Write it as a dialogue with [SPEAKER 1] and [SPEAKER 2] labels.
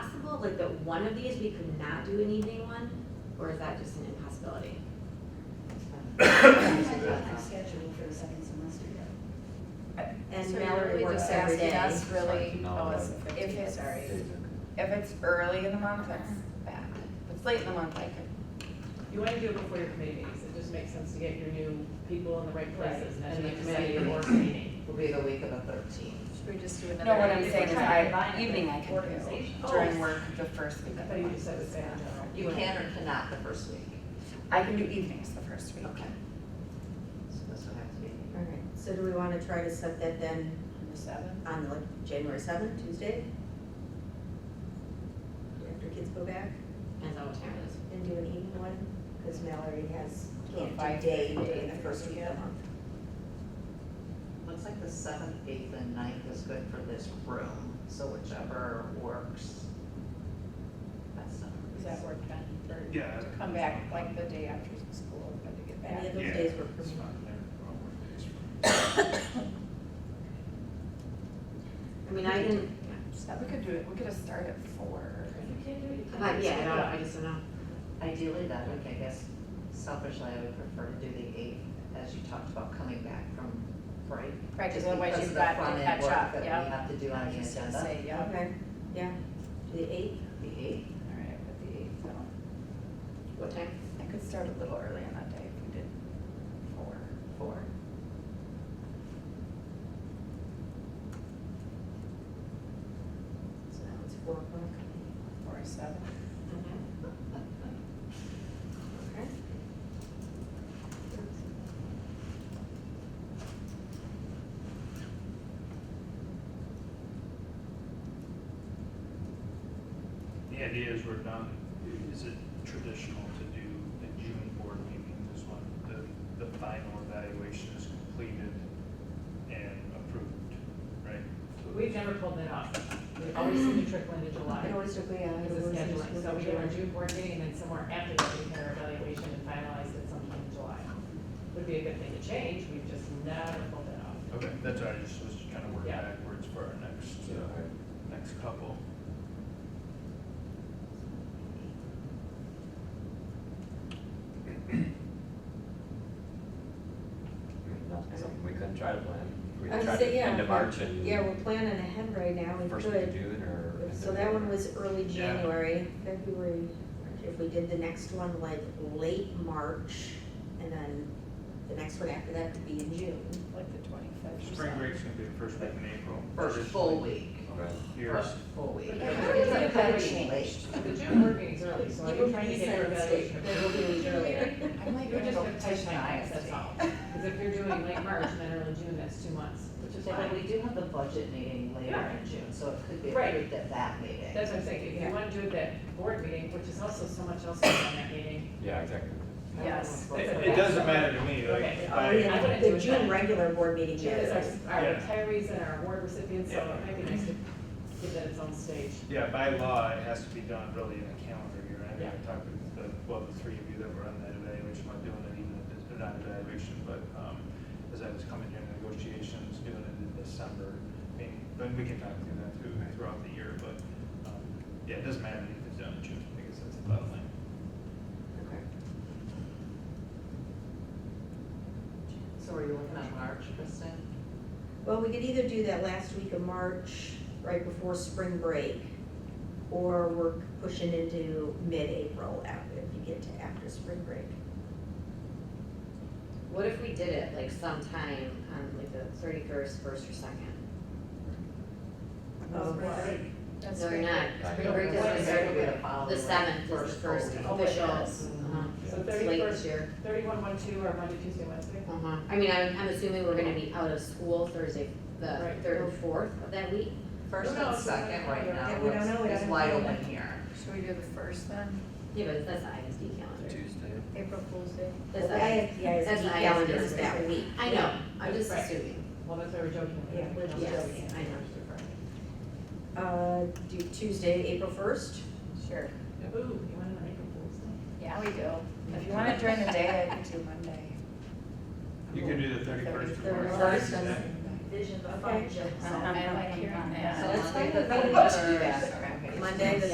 [SPEAKER 1] like that one of these we could not do an evening one? Or is that just an impossibility?
[SPEAKER 2] It's not my schedule for the second semester yet.
[SPEAKER 1] And
[SPEAKER 3] So
[SPEAKER 1] Mallory
[SPEAKER 3] you're really
[SPEAKER 1] works
[SPEAKER 3] just
[SPEAKER 1] every
[SPEAKER 3] asking
[SPEAKER 1] day.
[SPEAKER 3] us really,
[SPEAKER 4] No,
[SPEAKER 3] oh, it's,
[SPEAKER 4] no.
[SPEAKER 3] if it's, if
[SPEAKER 4] Well,
[SPEAKER 3] it's early in the month, that's bad. If it's late in the month, I could,
[SPEAKER 5] You want to do it before your committee meetings, it just makes sense to get your new people in the right places, and the committee or meeting.
[SPEAKER 6] Will be the week of the thirteenth.
[SPEAKER 7] Should we just do another?
[SPEAKER 3] no, what I'm
[SPEAKER 7] evening?
[SPEAKER 3] saying is
[SPEAKER 7] We're trying to combine
[SPEAKER 3] I,
[SPEAKER 7] it
[SPEAKER 3] evening
[SPEAKER 7] with
[SPEAKER 3] I can
[SPEAKER 7] organization.
[SPEAKER 3] do during work the first week
[SPEAKER 5] I
[SPEAKER 3] of the
[SPEAKER 5] thought you
[SPEAKER 3] month.
[SPEAKER 5] just said it's in general.
[SPEAKER 6] You can or cannot the first week.
[SPEAKER 3] I can do evenings the first week.
[SPEAKER 6] Okay. So this would have to be.
[SPEAKER 8] All right, so do we want to try to set that then
[SPEAKER 3] On the seventh?
[SPEAKER 8] on like January seventh, Tuesday? After kids go back
[SPEAKER 1] Depends on what time it is.
[SPEAKER 8] and do an evening one, because Mallory has,
[SPEAKER 3] Do a
[SPEAKER 8] can't
[SPEAKER 3] five
[SPEAKER 8] do day
[SPEAKER 3] thirty
[SPEAKER 8] in the first week of the
[SPEAKER 3] yeah.
[SPEAKER 8] month.
[SPEAKER 6] Looks like the seventh, eighth, and ninth is good for this room, so whichever works. That's not.
[SPEAKER 3] Does that work then for,
[SPEAKER 4] Yeah.
[SPEAKER 3] to come back like the day after school, but to get
[SPEAKER 8] Any
[SPEAKER 3] back?
[SPEAKER 8] of those days were
[SPEAKER 4] It's
[SPEAKER 8] permitted.
[SPEAKER 4] fine, they're all work days for me.
[SPEAKER 1] I mean, I didn't,
[SPEAKER 3] So we could do it, we could just start at four.
[SPEAKER 1] but yeah, I don't, I just don't know.
[SPEAKER 6] Ideally, that week, I guess selfishly, I would prefer to do the eighth, as you talked about coming back from break.
[SPEAKER 3] Right, 'cause
[SPEAKER 6] Just
[SPEAKER 3] otherwise
[SPEAKER 6] because
[SPEAKER 3] you've
[SPEAKER 6] of the
[SPEAKER 3] got to
[SPEAKER 6] front-end
[SPEAKER 3] catch
[SPEAKER 6] work
[SPEAKER 3] up,
[SPEAKER 6] That we
[SPEAKER 3] yeah.
[SPEAKER 6] have to do
[SPEAKER 3] I
[SPEAKER 6] on
[SPEAKER 3] was
[SPEAKER 6] the
[SPEAKER 3] just gonna
[SPEAKER 6] agenda,
[SPEAKER 3] say, yeah.
[SPEAKER 8] Okay, yeah, to the eighth,
[SPEAKER 6] the eighth.
[SPEAKER 3] All right, with the eighth, so
[SPEAKER 1] What time?
[SPEAKER 3] I could start a little early on that day if we did four. Four.
[SPEAKER 8] so now it's four o'clock.
[SPEAKER 3] Four or seven.
[SPEAKER 8] Okay.
[SPEAKER 9] The idea is we're done, is it traditional to do the June board meeting is when the, the final evaluation is completed and approved, right? So
[SPEAKER 5] We've never pulled that off, we always seem to trickle into July.
[SPEAKER 8] It always took me out.
[SPEAKER 5] Because of scheduling, so we do our June board meeting, and then somewhere after that, we can our evaluation and finalize it sometime in July. Would be a good thing to change, we've just never pulled that off.
[SPEAKER 9] Okay, that's all, I just was kind of working
[SPEAKER 5] Yeah.
[SPEAKER 9] backwards for our next, uh, next couple.
[SPEAKER 4] That's something we couldn't try to plan. We
[SPEAKER 8] I would
[SPEAKER 4] tried
[SPEAKER 8] say,
[SPEAKER 4] to
[SPEAKER 8] yeah,
[SPEAKER 4] end of March and
[SPEAKER 8] Yeah, we're planning ahead right now, we
[SPEAKER 4] first week of
[SPEAKER 8] could.
[SPEAKER 4] June or. end
[SPEAKER 8] So
[SPEAKER 4] of
[SPEAKER 8] that one
[SPEAKER 4] April.
[SPEAKER 8] was early
[SPEAKER 9] Yeah.
[SPEAKER 8] January, February, if we did the next one like late March, and then the next one after that could be in June.
[SPEAKER 3] Like the twenty-fifth.
[SPEAKER 9] Spring break's gonna be the first week in April.
[SPEAKER 6] First full week.
[SPEAKER 4] Okay.
[SPEAKER 9] Here's,
[SPEAKER 6] First full week.
[SPEAKER 5] But how is it
[SPEAKER 3] that
[SPEAKER 6] Pretty
[SPEAKER 3] changed?
[SPEAKER 6] late.
[SPEAKER 5] But the June board meeting's early, so
[SPEAKER 8] You
[SPEAKER 5] I'm
[SPEAKER 8] would
[SPEAKER 5] trying to
[SPEAKER 8] be
[SPEAKER 5] get your
[SPEAKER 8] saying
[SPEAKER 5] evaluation.
[SPEAKER 8] that it'll be
[SPEAKER 5] approved
[SPEAKER 8] earlier.
[SPEAKER 3] I might
[SPEAKER 5] You're
[SPEAKER 3] go
[SPEAKER 5] just gonna
[SPEAKER 3] petition
[SPEAKER 5] timelines, that's
[SPEAKER 3] ISD.
[SPEAKER 5] all. Because if you're doing late March and then early June, that's two months, which is
[SPEAKER 6] But
[SPEAKER 5] fine.
[SPEAKER 6] we do have the budget meeting later
[SPEAKER 5] Yeah.
[SPEAKER 6] in June, so it could be
[SPEAKER 5] Right.
[SPEAKER 6] approved at that meeting.
[SPEAKER 5] That's what I'm saying, if you wanna do it that board meeting, which is also so much else going on in that meeting.
[SPEAKER 4] Yeah, exactly.
[SPEAKER 3] Yes.
[SPEAKER 9] it, it doesn't matter to me,
[SPEAKER 5] Okay.
[SPEAKER 9] like,
[SPEAKER 8] Oh,
[SPEAKER 9] I,
[SPEAKER 5] I
[SPEAKER 8] yeah,
[SPEAKER 5] wouldn't do
[SPEAKER 8] the
[SPEAKER 5] it
[SPEAKER 8] June
[SPEAKER 5] then.
[SPEAKER 8] regular board meeting
[SPEAKER 5] June is
[SPEAKER 8] is.
[SPEAKER 5] our, our
[SPEAKER 9] Yeah.
[SPEAKER 5] retirees and our award recipients, so it might be nice to give that its own stage.
[SPEAKER 9] yeah, by law, it has to be done really in a calendar year. I think
[SPEAKER 5] Yeah.
[SPEAKER 9] I talked with the, well, the three of you that were on that evaluation, not doing it even, if it's not evaluation, but, um, as I was coming here in negotiations, doing it in December, I mean, then we can talk through that through, throughout the year, but, um, yeah, it doesn't matter if it's done in June, I guess that's the bottom line.
[SPEAKER 6] So are you looking at March, Kristen?
[SPEAKER 8] Well, we could either do that last week of March, right before spring break, or we're pushing into mid-April after, if you get to after spring break.
[SPEAKER 1] What if we did it like sometime on like the thirty-first, first or second?
[SPEAKER 3] Oh,
[SPEAKER 8] Of
[SPEAKER 1] No, you're not.
[SPEAKER 4] Right.
[SPEAKER 1] Spring break
[SPEAKER 6] What
[SPEAKER 1] is
[SPEAKER 6] is
[SPEAKER 1] the
[SPEAKER 6] it
[SPEAKER 1] third,
[SPEAKER 6] gonna follow
[SPEAKER 1] the
[SPEAKER 6] with
[SPEAKER 1] seventh is the
[SPEAKER 6] full
[SPEAKER 1] first
[SPEAKER 6] week?
[SPEAKER 1] official.
[SPEAKER 5] Oh, it is.
[SPEAKER 1] Uh-huh.
[SPEAKER 5] So
[SPEAKER 1] It's late this
[SPEAKER 5] 31st
[SPEAKER 1] year.
[SPEAKER 5] Thirty-one, one, two, or Monday, Tuesday, Wednesday?
[SPEAKER 1] Uh-huh. I mean, I'm, I'm assuming we're gonna be out of school Thursday, the
[SPEAKER 5] Right.
[SPEAKER 1] third or fourth of that week.
[SPEAKER 6] First and
[SPEAKER 5] No, it's-
[SPEAKER 6] second right now,
[SPEAKER 8] Yeah, we don't
[SPEAKER 6] it's-
[SPEAKER 8] know, we
[SPEAKER 6] it's
[SPEAKER 8] don't
[SPEAKER 6] wide
[SPEAKER 8] know.
[SPEAKER 6] open here.
[SPEAKER 3] Should we do the first then?
[SPEAKER 1] Yeah, but that's the ISD calendar.
[SPEAKER 4] Tuesday.
[SPEAKER 7] April Fool's Day.
[SPEAKER 1] That's
[SPEAKER 8] The
[SPEAKER 1] the I-
[SPEAKER 8] ISD
[SPEAKER 1] that's the
[SPEAKER 8] calendar
[SPEAKER 1] ISD.
[SPEAKER 8] is that week.
[SPEAKER 1] I know, I'm just
[SPEAKER 5] Right.
[SPEAKER 1] assuming.
[SPEAKER 5] Well, that's why we're joking.
[SPEAKER 8] Yeah, we're just
[SPEAKER 1] Yes,
[SPEAKER 8] joking.
[SPEAKER 1] I know.
[SPEAKER 8] Uh, do Tuesday, April first?
[SPEAKER 3] Sure.
[SPEAKER 5] Ooh, you wanna make a fool's day?
[SPEAKER 3] Yeah, we do. If you want it during the day, I could do Monday.
[SPEAKER 9] You can do the thirty-first of March.
[SPEAKER 8] First
[SPEAKER 9] Yeah.
[SPEAKER 7] Vision of
[SPEAKER 8] Okay.
[SPEAKER 7] functions.
[SPEAKER 1] Uh-huh.
[SPEAKER 3] I like hearing that.
[SPEAKER 1] So let's
[SPEAKER 6] Monday
[SPEAKER 1] find a
[SPEAKER 6] the
[SPEAKER 1] meeting to do that.
[SPEAKER 6] 31st. Okay.
[SPEAKER 1] Monday, the